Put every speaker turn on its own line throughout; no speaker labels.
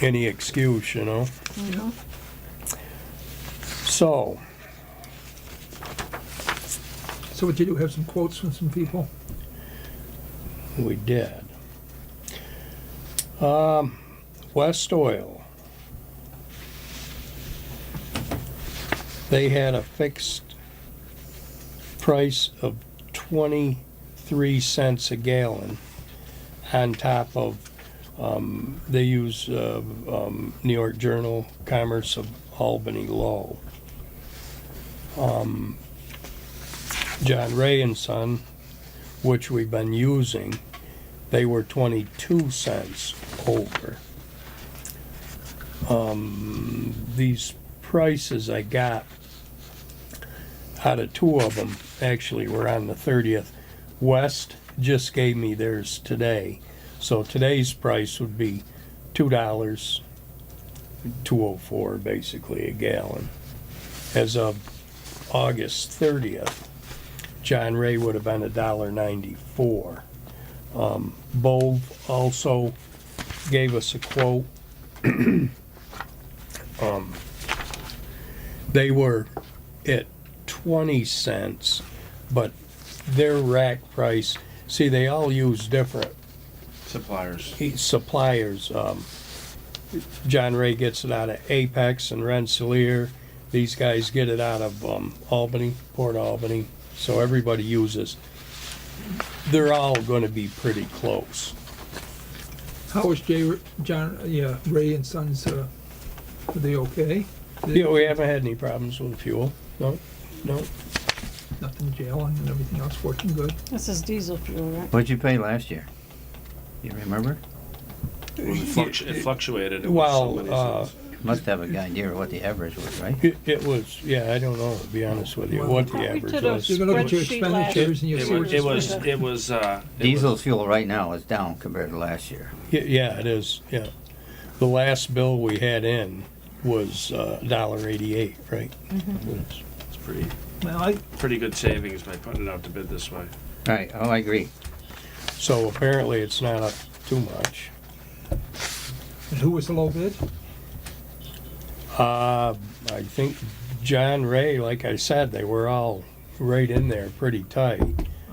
any excuse, you know? So,
So what you do, have some quotes from some people?
we did. Um, West Oil. They had a fixed price of twenty-three cents a gallon on top of, um, they use, uh, um, New York Journal Commerce of Albany Law. Um, John Ray and Son which we've been using, they were 22 cents over. Um, These prices I got out of two of them, actually were on the 30th. West just gave me theirs today. So today's price would be $2, 204 basically a gallon. As of August 30th, John Ray would have been a dollar ninety-four. Um, Bove also gave us a quote. Um, They were at twenty cents, but their rack price, see, they all use different
suppliers.
he- suppliers. um, John Ray gets it out of Apex and Rensselaer. These guys get it out of um, Albany, Port Albany. So everybody uses. They're all going to be pretty close.
How was Jay, John, yeah, Ray and Sons, uh, are they okay?
Yeah, we haven't had any problems with fuel. No, no.
Nothing jailing and everything else working good?
This is diesel fuel, right?
What'd you pay last year? You remember?
Well, it, fluctu- it fluctuated. It was so many
Well, uh,
cents.
Must have a idea of what the average was, right?
it, it was. Yeah, I don't know. To be honest with you, what the
Well, we
average
did a-
was.
You're gonna look at your
Spreadsheet last-
expenditures and you'll
it
see what
was.
your
It was. It was. Uh, it
Diesel
was-
fuel right now is down compared to last year.
Y- Yeah, it is. Yeah, the last bill we had in was uh, dollar eighty-eight, right?
it's pretty
Well, I,
pretty good savings by putting it out to bid this way.
Right, oh, I agree.
So apparently it's not up too much.
and who was the low bid?
Uh, I think John Ray, like I said, they were all right in there pretty tight.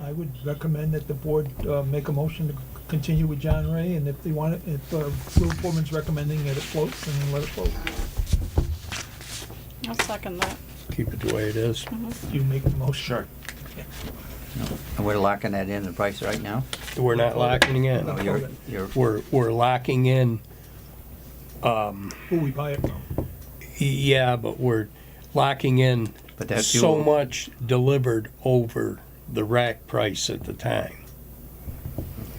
I would recommend that the board, uh, make a motion to continue with John Ray, and if they want it, if, uh, Lou Foreman's recommending that it floats, then let it float.
I'll second that. Mm-hmm.
Keep it the way it is.
You make the motion.
And we're locking that in, the price right now?
We're not locking in.
Oh, you're, you're,
We're, we're locking in,
Who we buy it from.
yeah, but we're locking in
but that
so
fuel,
much delivered over the rack price at the time,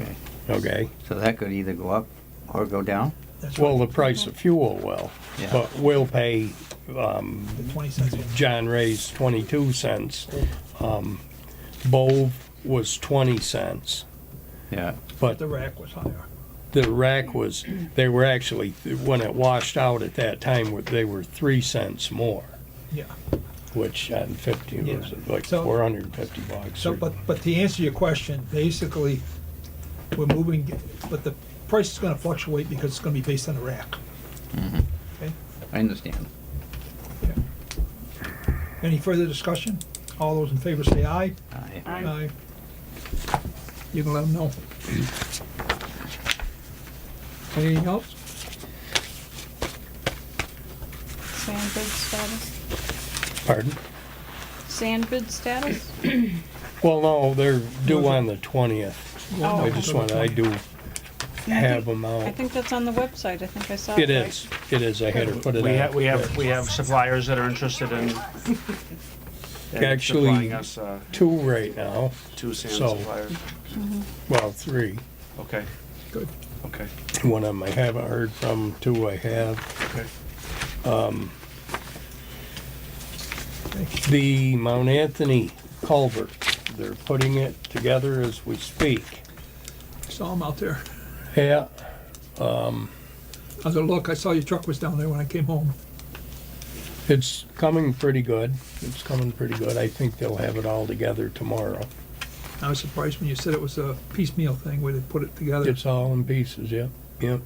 okay.
okay?
So that could either go up or go down?
That's
Well,
right,
the price of fuel will,
Yeah.
but we'll pay, um,
the twenty cents. one.
John Ray's twenty-two cents. Um, Bove was twenty cents,
Yeah.
but
The rack was higher.
the rack was, they were actually, when it washed out at that time, were- they were three cents more,
Yeah,
which on fifty was
Yeah.
like
So-
four hundred and fifty bucks.
so,
or-
but, but to answer your question, basically, we're moving, but the price is gonna fluctuate because it's gonna be based on the rack.
I understand.
Any further discussion? All those in favor say aye.
I-
Aye.
You can let them know. Anything else?
Sand bid status?
Pardon?
Sand bid status?
Well, no, they're due on the twentieth.
Oh.
I just want, I do have them
I
out.
think that's on the website. I think I saw it.
It is, it is. I had her put it
We have
out.
we have we have suppliers that are interested in, in
Actually-
supplying us uh,
Two right now,
two sand
So-
suppliers.
well, three.
Okay.
Good.
Okay.
One of them I haven't heard from, two I have.
Okay.
The Mount Anthony culvert, they're putting it together as we speak.
Saw them out there.
Yeah,
I was gonna look, I saw your truck was down there when I came home.
it's coming pretty good. It's coming pretty good. I think they'll have it all together tomorrow.
I was surprised when you said it was a piecemeal thing where they put it together.
It's all in pieces, yep, yep.